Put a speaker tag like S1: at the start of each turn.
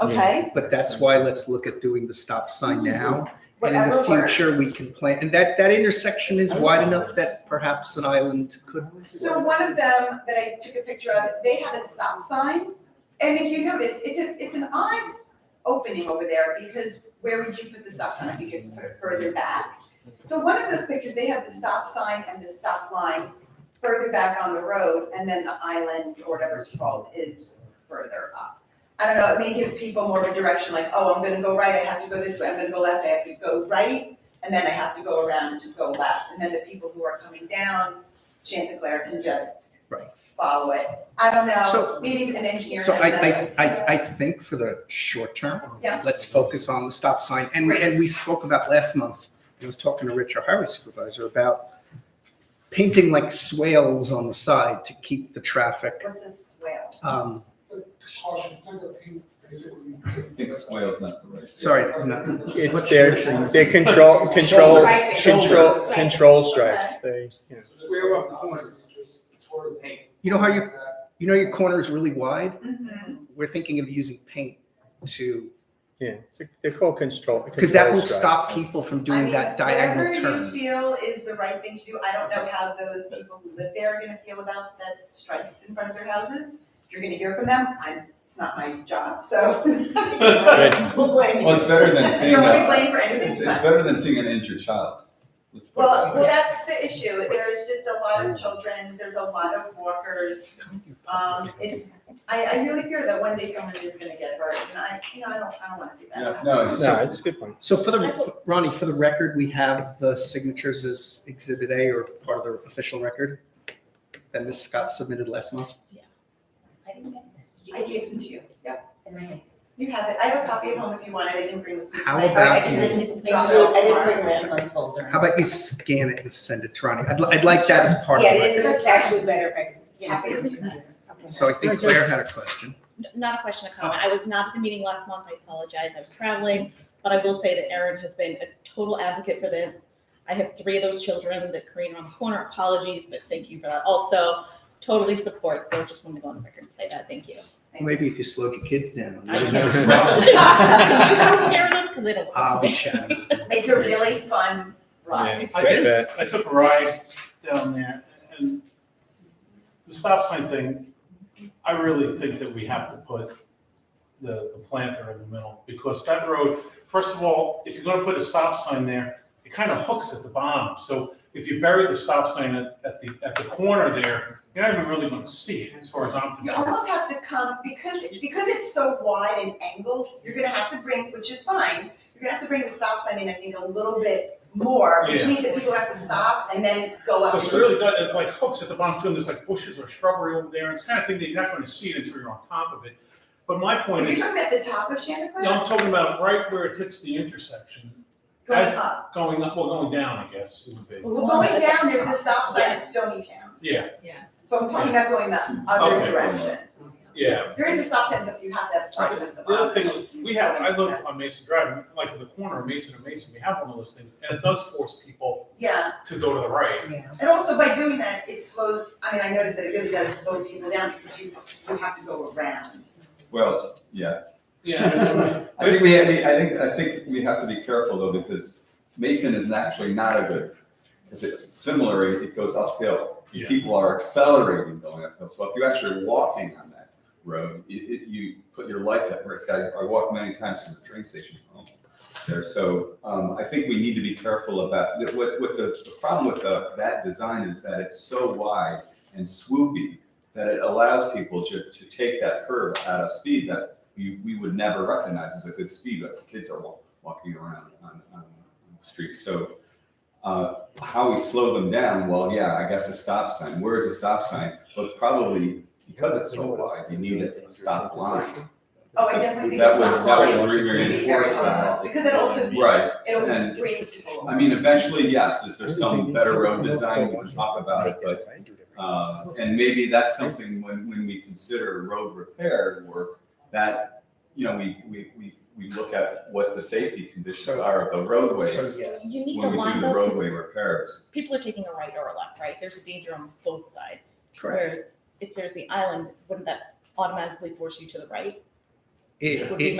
S1: Okay,
S2: But that's why let's look at doing the stop sign now. And in
S1: whatever
S2: the future,
S1: works.
S2: we can plan, and that, that intersection is wide enough that perhaps an island could.
S1: So one of them that I took a picture of, they had a stop sign. And if you notice, it's a, it's an odd opening over there because where would you put the stop sign? I think you could put it further back. So one of those pictures, they have the stop sign and the stop line further back on the road and then the island or whatever it's called is further up. I don't know, it may give people more of a direction, like, oh, I'm gonna go right, I have to go this way, I'm gonna go left, I have to go right, and then I have to go around to go left. And then the people who are coming down Chanticleer can just
S2: Right.
S1: follow it. I don't know,
S2: So-
S1: maybe it's an engineer.
S2: So I,
S1: has
S2: I,
S1: that.
S2: I, I think for the short term,
S1: Yeah.
S2: let's focus on the stop sign. And, and we spoke about last month, I was talking to Rich, our highway supervisor, about painting like swales on the side to keep the traffic,
S1: What's a swale?
S2: um,
S3: caution, kind of paint, basically.
S4: I think swale's not the right.
S2: sorry, no,
S5: It's
S3: What's
S5: their,
S3: the-
S5: their control, control,
S6: Striping.
S5: control,
S6: Right.
S5: control stripes, they, you know.
S3: Square up corners.
S2: You know how you- you know your corner is really wide?
S1: Mhm.
S2: we're thinking of using paint to,
S5: yeah, it's, they're called control.
S2: because that
S5: control
S2: will
S5: stripes.
S2: stop people from
S1: I
S2: doing
S1: mean,
S2: that diagonal
S1: Whatever you
S2: turn.
S1: feel is the right thing to do, I don't know how those people who live there are gonna feel about that stripes in front of their houses. If you're gonna hear from them, I'm, it's not my job, so.
S6: We'll blame
S4: Well, it's better than seeing
S1: Don't be
S4: a,
S1: blamed for
S4: it's,
S1: anything,
S4: it's
S1: but-
S4: better than seeing an injured child. Let's put it
S1: well,
S4: that
S1: well,
S4: way.
S1: that's the issue, there's just a lot of children, there's a lot of walkers. Um, it's, I, I really fear that one day someone is gonna get hurt, and I, you know, I don't, I don't wanna see that
S4: Yeah,
S1: happen.
S4: no, it's-
S5: No, it's a good point.
S2: So for the, Ronnie, for the record, we have the signatures as exhibit A or part of the official record that Ms. Scott submitted last month.
S6: I didn't get this. Did you
S1: I
S6: get
S1: gave them to you, yeah,
S6: it in my hand?
S1: you have it, I have a copy at home if you want it, I didn't bring this. this
S2: How
S1: night.
S6: All right, I
S2: about
S6: just
S2: you?
S6: didn't, make-
S1: Drop
S6: so
S1: it
S6: I didn't
S1: tomorrow.
S6: bring last month's folder.
S2: How about you scan it and send it to Ronnie? I'd, li- I'd like that as part of
S6: Yeah,
S2: the
S6: it
S2: record.
S6: didn't- it's actually better if I, could- yeah.
S1: Happy to do that.
S6: Okay.
S2: So I think Claire had a question.
S7: N- not a question, a comment. I was not at the meeting last month. I apologize. I was traveling, but I will say that Erin has been a total advocate for this. I have three of those children that Korean around the corner. Apologies, but thank you for that. Also, totally support. So just wanted to go on the record and say that. Thank you.
S2: Maybe if you slowed your kids down.
S7: I
S2: I'll
S7: don't you don't scare them because they don't listen to
S2: be
S7: me.
S2: chatting.
S1: It's a really fun
S5: Yeah,
S1: ride.
S5: it's
S8: I
S5: like
S8: did,
S5: that.
S8: I took a ride down there and the stop sign thing, I really think that we have to put the, the planter in the middle because that road, first of all, if you're gonna put a stop sign there, it kind of hooks at the bottom. So if you bury the stop sign at, at the, at the corner there, you're not even really gonna see it as far as I'm
S1: You
S8: concerned.
S1: almost have to come, because, because it's so wide and angles, you're gonna have to bring, which is fine, you're gonna have to bring the stop sign in, I think, a little bit more, which
S8: Yeah.
S1: means that people have to stop and then go up.
S8: Because it really does, it like hooks at the bottom too, and there's like bushes or shrubbery over there. It's kind of thing that you're not gonna see it until you're on top of it. But my
S1: Are
S8: point
S1: you
S8: is,
S1: talking about the top of Chanticleer?
S8: No, I'm talking about right where it hits the intersection,
S1: Going up.
S8: going up, well, going down, I guess, it would be.
S1: Well, going down, there's a stop sign at Stony Town,
S8: Yeah,
S1: so I'm talking about going the other
S8: Okay.
S1: direction.
S8: yeah.
S1: There is a stop sign, but you have to have a stop sign at the
S8: The other
S1: bottom.
S8: thing, is, we have, I live on Mason Drive, like at the corner of Mason and Mason, we have one of those things, and it does force people
S1: Yeah,
S8: to go to the right.
S6: Yeah.
S1: and also by doing that, it slows, I mean, I noticed that it really does slow people down because you, you have to go around.
S4: Well, yeah,
S8: Yeah.
S4: I think we, have- we- I think, I think we have to be careful though, because Mason is actually not a good, because it, similarly, it goes uphill.
S8: Yeah.
S4: People are accelerating going uphill, so if you're actually walking on that road, it, it, you put your life at risk. I, I walked many times from the train station home there, so, um, I think we need to be careful about, what, what the, the problem with the, that design is that it's so wide and swoopy that it allows people to, to take that curve at a speed that we, we would never recognize as a good speed, but the kids are wa- walking around on, on the streets. So uh, how we slow them down, well, yeah, I guess a stop sign, where is a stop sign? But probably because it's so wide, you need a stop line.
S1: Oh, I definitely think
S4: That
S1: it's
S4: would-
S1: not
S4: that
S1: lying.
S4: would reinforce that.
S1: Because it also,
S4: Right,
S1: it'll
S4: And-
S1: bring people.
S4: I mean, eventually, yes, is there some better road design, we can talk about it, but Uh, And maybe that's something when, when we consider road repair work, that, you know, we, we, we, we look at what the safety conditions
S2: So-
S4: are of the roadway
S2: So yes.
S7: You need the
S4: when we do
S7: one
S4: the
S7: though, 'cause
S4: roadway repairs.
S7: people are taking a right or a left, right? There's a danger on both sides.
S2: Correct.
S7: Whereas if there's the island, wouldn't that automatically force you to the right?
S2: It,
S7: It would be
S2: it,